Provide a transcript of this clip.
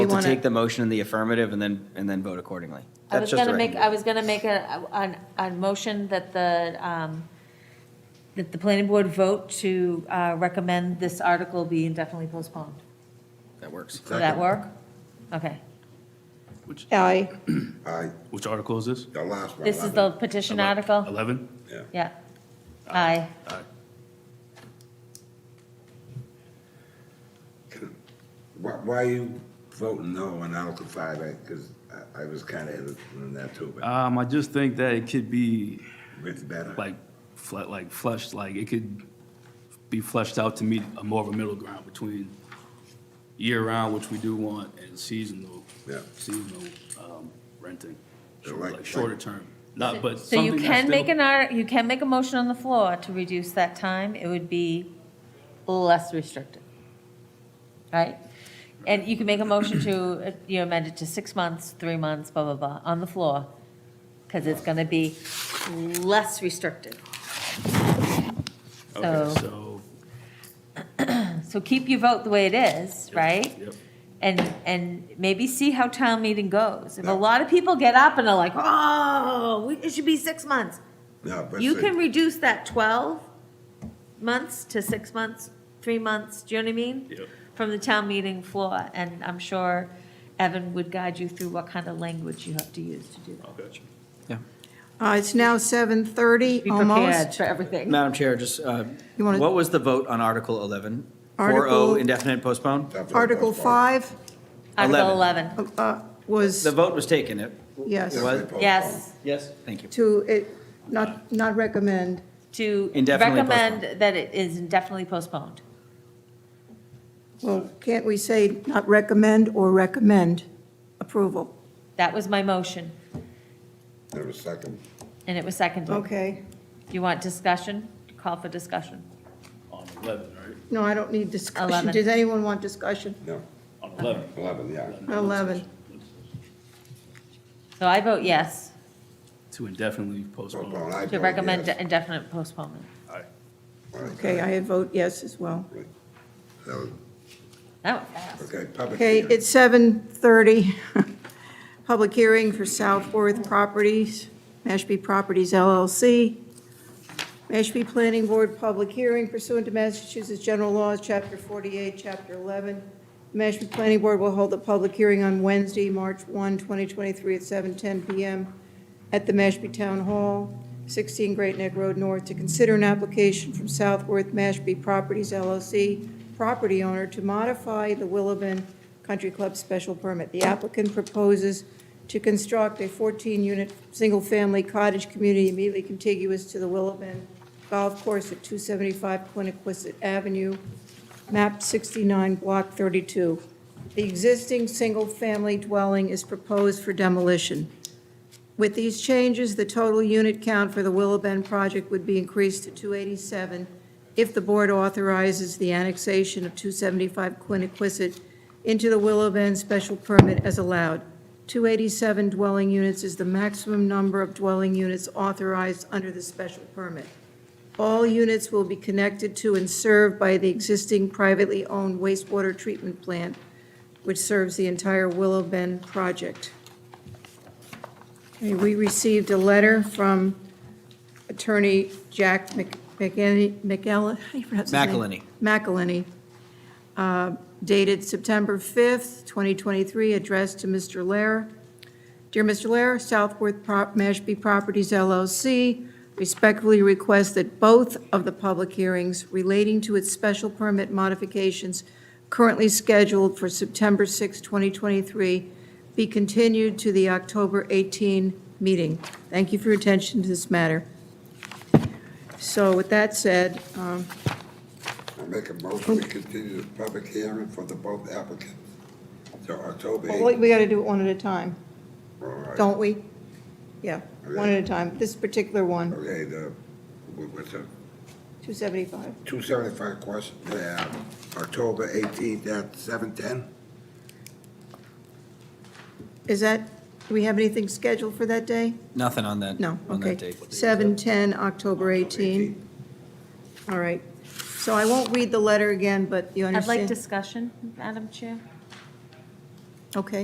Well, to wanna- take the motion in the affirmative and then, and then vote accordingly. I That's was just a gonna make, I recommendation. was gonna make a, an, a motion that the, um, that the planning board vote to, uh, recommend this article be indefinitely postponed. That works. Does that work? Okay. Aye. Aye, Which article is this? the last one. This is the petition article? 11? Yeah. Yeah. Aye. Why, why are you voting no on Article five? Because I, I was kind of hesitant on that too, but Um, I just think that it could be it's better. like, fle- like fleshed, like it could be fleshed out to meet a more of a middle ground between year-round, which we do want, and seasonal, Yeah. seasonal um, renting, So like- like shorter term. Not, Uh, but So you something that's can make still- an art, you can make a motion on the floor to reduce that time. It would be less restrictive. Right? And you can make a motion to, uh, you amend it to six months, three months, blah, blah, blah, on the floor. Because it's going to be less restrictive. Okay, so- so, So keep your vote the way it is, right? yep. And, and maybe see how town meeting goes. If a lot of people get up and are like, oh, we- it should be six months. No, but You see, can reduce that 12 months to six months, three months, do you know what I mean? Yep. From the town meeting floor, and I'm sure Evan would guide you through what kind of language you have to use to do that. Okay. Uh, It's now 7:30, Be almost. prepared for everything. Madam Chair, just, uh, You wanna- what was the vote on Article 11? 4-0 Article- indefinite postpone? that's what I Article was voting. 5 Article 11. 11, uh, was, The vote was taken, it? yes, It was? Postpone. yes, Yes. Thank you. to, it- not, not recommend. to Indefinitely recommend that it is indefinitely postponed. Well, can't we say not recommend or recommend approval? That was my motion, There was second. and it was seconded. Okay. Do you want discussion? Call for discussion. On 11, right? No, I don't need discussion. Eleven. Does anyone want discussion? No, On 11. eleven, yeah. 11. So I vote yes To indefinitely Postpone, postpone. I to vote recommend yes. indefinite postponement. All right, Okay, I vote yes as well. so, That went fast. Okay, public Okay, hearing. it's 7:30. Public hearing for Southworth Properties, Mashpee Properties LLC. Mashpee Planning Board Public Hearing pursuant to Massachusetts General Laws, Chapter 48, Chapter 11. The Mashpee Planning Board will hold a public hearing on Wednesday, March 1, 2023, at 7:10 PM at the Mashpee Town Hall, 16 Great Neck Road North, to consider an application from Southworth Mashpee Properties LLC, property owner, to modify the Willabon Country Club special permit. The applicant proposes to construct a 14-unit, single-family cottage community immediately contiguous to the Willabon Golf Course at 275 Quiniquisette Avenue, map 69, block 32. The existing single-family dwelling is proposed for demolition. With these changes, the total unit count for the Willow Bend project would be increased to 287 if the board authorizes the annexation of 275 Quiniquisette into the Willow Bend special permit as allowed. 287 dwelling units is the maximum number of dwelling units authorized under the special permit. All units will be connected to and served by the existing privately owned wastewater treatment plant, which serves the entire Willow Bend project. Okay, We received a letter from Attorney Jack Mc- McEnany, McEllen, how do you pronounce his name? McElhenney, uh, dated September 5th, 2023, addressed to Mr. Lair. Dear Mr. Lair, Southworth Prop- Mashpee Properties LLC respectfully requests that both of the public hearings relating to its special permit modifications currently scheduled for September 6, 2023, be continued to the October 18 meeting. Thank you for your attention to this matter. So with that said, um, I make a motion, we continue the public hearing for the both applicants till October well, eighth. we got to do it one at a time, All right. don't we? Yeah, one at a time. This particular one, Okay, the, what- what's it, 275. two seventy-five question, yeah, October eighteenth at seven ten? Is that, do we have anything scheduled for that day? Nothing on that, No, on okay. that date. 7/10, October 18. All right. So I won't read the letter again, but you I'd like understand? discussion, Madam Chair. Okay.